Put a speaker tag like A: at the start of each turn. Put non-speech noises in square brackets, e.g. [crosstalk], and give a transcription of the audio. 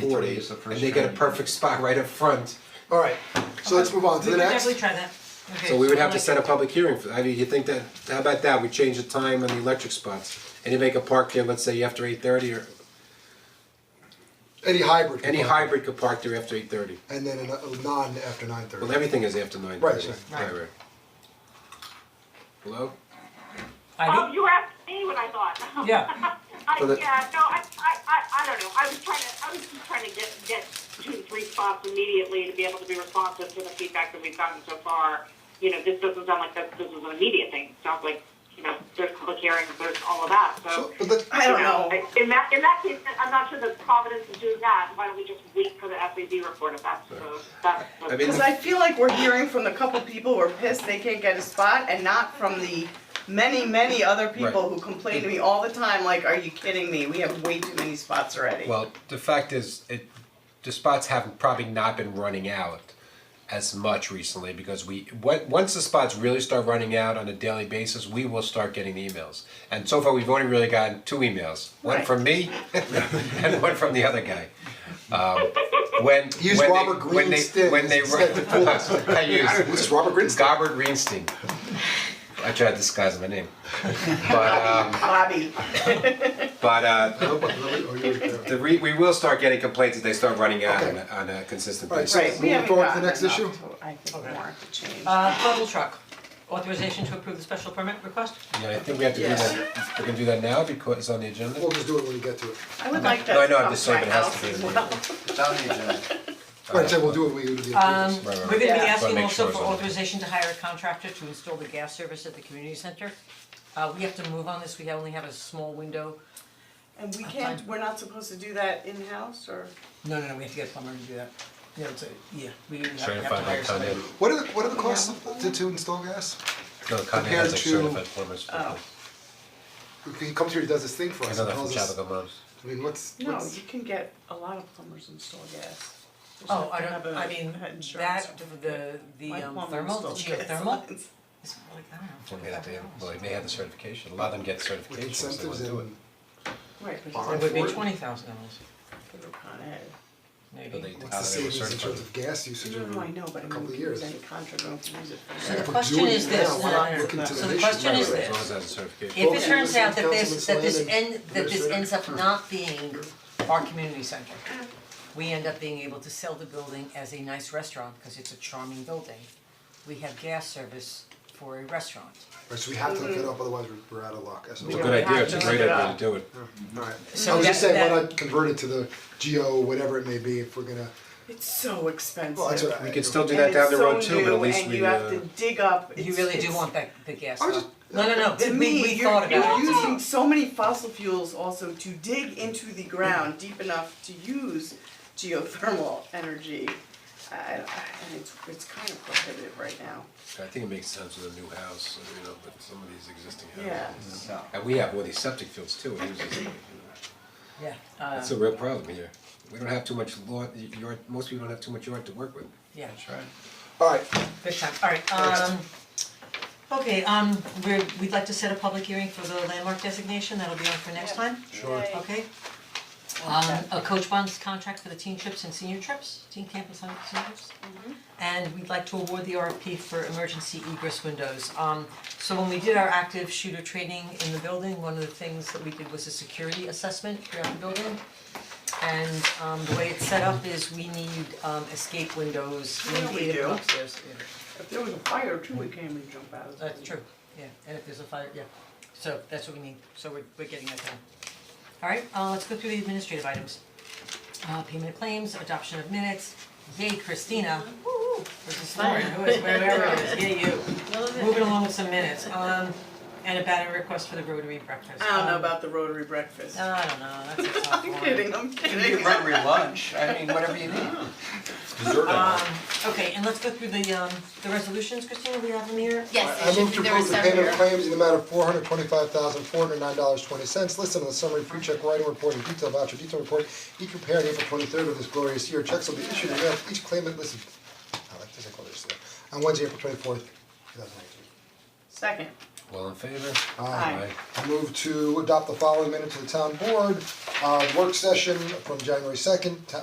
A: forty,
B: is the
A: and
B: first
A: they get a
B: training.
A: perfect spot right up front.
C: Alright, so let's move on to
D: We
C: the
D: could
C: next.
D: definitely try that. Okay,
A: So we would have
D: I
A: to
D: like
A: set
D: it.
A: a public hearing for, how do you think that, how about that, we change the time on the electric spots? And you make a park there, let's say after eight thirty, or
C: Any hybrid.
A: any
C: component.
A: hybrid could park there after eight thirty.
C: And then a a non after nine thirty.
A: Well, everything is after nine thirty.
C: Right,
D: right.
A: Right, right. Hello?
E: Oh,
F: I
E: you were asking me what I thought. [laughs]
F: Yeah.
E: I,
A: For the-
E: yeah, no, I, I, I, I don't know. I was trying to, I was just trying to get, get to response immediately to be able to be responsive to the feedback that we've gotten so far. You know, this doesn't sound like that, this is an immediate thing. It sounds like, you know, there's public hearings, there's all of that, so.
C: So, Oh, but let,
E: I don't know. In that, in that case, I'm not sure that Providence is doing that. Why don't we just wait for the FAB report if that's, so that's.
A: I mean,
G: Because I feel like we're hearing from the couple people who are pissed they can't get a spot and not from the many, many other people
A: Right.
G: who complain to me all the time, like, are you kidding me? We have way too many spots already.
A: Well, the fact is, it, the spots have probably not been running out as much recently because we, on- once the spots really start running out on a daily basis, we will start getting the emails. And so far, we've only really gotten two emails, one
G: Right.
A: from me [laughs] and one from the other guy. Um, when,
C: Use
A: when they-
C: Robert
A: when they-
C: Greenstein
A: when they
C: instead to
A: run, [laughs] I
C: [laughs]
A: use.
C: this is Robert Greenstein.
A: Robert Greenstein. I tried to disguise my name. But, um,
G: Bobby,
A: but, uh,
C: Alright,
A: [laughs] the re- we will start getting complaints if they start running out on,
C: Okay.
A: a, on a consistent
C: Alright,
A: basis.
C: so
G: right, we
C: moving
G: haven't
C: forward to the
G: gotten
C: next
G: enough
C: issue?
G: to- I think more have to change.
D: Uh, bubble truck, authorization to approve the special permit request?
A: Yeah, I think we have to do
G: Yes.
A: that. We can do that now because it's on the agenda.
C: We'll just do it when we get to it.
G: I would like
A: No, I
G: that
A: know,
G: to
A: I'm
G: come
A: just
G: to
A: saying
G: my
A: it has
G: house
A: to be
G: as
A: in the-
G: [laughs] well.
B: It's on the agenda.
C: Alright, so we'll do it when we do the
D: Um,
C: approvals.
A: Right, right,
D: we're gonna be
G: right.
D: asking
A: Wanna make sure
D: also
A: it's
D: for
A: on.
D: authorization to hire a contractor to install the gas service at the community center. Uh, we have to move on this, we only have a small window.
G: And we can't, we're not supposed to do that in-house or?
D: No, no, no, we have to get a plumber to do that. Yeah, it's a, yeah, we have we have to
A: Certified by
D: hire
A: Con
D: somebody.
A: Ed.
C: What are the, what are the costs to, to install gas?
A: No, Con Ed
C: Compared
A: has like
C: to-
A: certified plumbers. for-
G: Oh.
C: He comes here, he does this thing for
A: I
C: us
A: know
C: and
A: that from
C: tells us,
A: Chabaco Moms.
C: I mean, what's,
G: No,
C: what's,
G: you can get a lot of plumbers install gas. Just
D: Oh,
G: have
D: I
G: to have
D: don't,
G: a-
D: I mean,
G: have insurance.
D: that, the, the
G: My
D: um,
G: plumber
D: thermal, the
G: installed gas
D: geothermal,
G: lines.
D: it's like, I
A: Well,
D: don't
A: they
D: know,
A: have
D: $500.
A: to- Well, they may have the certification. A lot of them get
C: with
A: certifications, they
C: incentives
A: wouldn't do it.
C: and,
G: [laughs] Right, but
C: Barn
D: It would
C: for
D: be
C: it?
D: twenty thousand dollars,
G: it's like Con Ed.
D: maybe.
A: But they,
C: what's
A: how
C: the
A: they were
C: savings in
A: certified.
C: terms of gas usage
G: No,
C: over a
G: no, I know,
C: couple
G: but I
C: of years?
G: mean, we can use any contract, we don't have to use it for.
D: So the
C: but
D: question
C: doing
D: is
C: it
D: this,
C: now,
D: no,
C: we're not
D: no, no,
C: looking
D: no.
C: to
D: so the
C: the
D: question
C: issue.
D: is
A: As
D: this.
A: long as it has a certification.
D: If it turns out that this, that this
C: Councilman Slaney,
D: end, that this
C: Administrator.
D: ends up not being our community center, we end up being able to sell the building as a nice restaurant, because it's a charming building. We have gas service for a restaurant.
C: Right, so we have to look
G: Mm-hmm.
C: it up, otherwise we're, we're out of luck, that's
A: It's a
C: all.
A: good idea, it's a
G: Yeah.
A: great idea to do it.
C: Alright,
D: So
C: I was just
D: that-
C: saying, why
D: that-
C: not convert it to the geo, whatever it may be, if we're gonna,
G: It's so expensive.
C: well, that's what I.
A: We could still do that down the road too, but at least we,
G: And it's so new and you
A: uh,
G: have to dig up,
D: You
G: it's-
D: really do
G: it's-
D: want that, the gas
C: I
D: though.
C: was just-
D: No, no, no,
G: uh, To
D: we, we,
G: me,
D: we
G: you're
D: thought
G: you're
D: about it.
G: using so many fossil fuels also to dig into the ground deep enough to use geothermal energy. I- I- and it's it's kind of prohibitive right now,
A: I think it makes sense with a new house, you know, with some of these existing
G: yeah.
A: houses. And we have all these septic fields too, it uses, you know.
D: Yeah, uh,
A: That's a real problem here. We don't have too much lawn, yard, most people don't have too much yard to work with.
D: yeah,
A: right.
C: Alright,
D: big time, alright, um, okay, um, we're, we'd like to set a public hearing for the landmark designation, that'll be on for next time.
C: Sure.
G: Yay.
D: Okay. Um, a coach bonds contract for the teen trips and senior trips, teen camp and summer- senior trips. And we'd like to award the RFP for emergency egress windows. Um, so when we did our active shooter training in the building, one of the things that we did was a security assessment throughout the building. And, um, the way it's set up is we need, um, escape windows, we
G: Yeah,
D: need
G: we
D: eight of them
G: do.
D: upstairs, yeah.
G: If there was a fire too, we can't even jump out of the
D: That's true, yeah, and if there's a fire, yeah, so that's what we need, so we're we're getting that done. Alright, uh let's go through the administrative items. Uh payment of claims, adoption of minutes, yay Christina, woo, where's the slide, who is, where, where, where is, yay you. Moving along with some minutes, um, and a banner request for the Rotary breakfast.
G: I don't know
D: Um,
G: about the rotary breakfast.
D: I don't know, that's a tough
G: [laughs] I'm
D: one.
G: kidding, I'm
B: You
G: kidding.
B: can run your lunch, I mean, whatever you need.
A: Dessert
D: Um, okay, and let's go through the um the resolutions, Christina, we have them here.
C: I I move to approve the payment of claims in the amount of four hundred twenty-five thousand, four hundred nine dollars, twenty cents, listed on the summary pre-check writing report and detailed voucher detail report, each prepared April twenty-third of this glorious year, checks will be issued and mailed to each claimant listed, I like this, I call this, uh, on Wednesday, April twenty-fourth, two thousand nineteen.
G: Second,
A: All in favor?
G: Aye.
C: I move to adopt the following minutes of the town board, uh, work session from January second,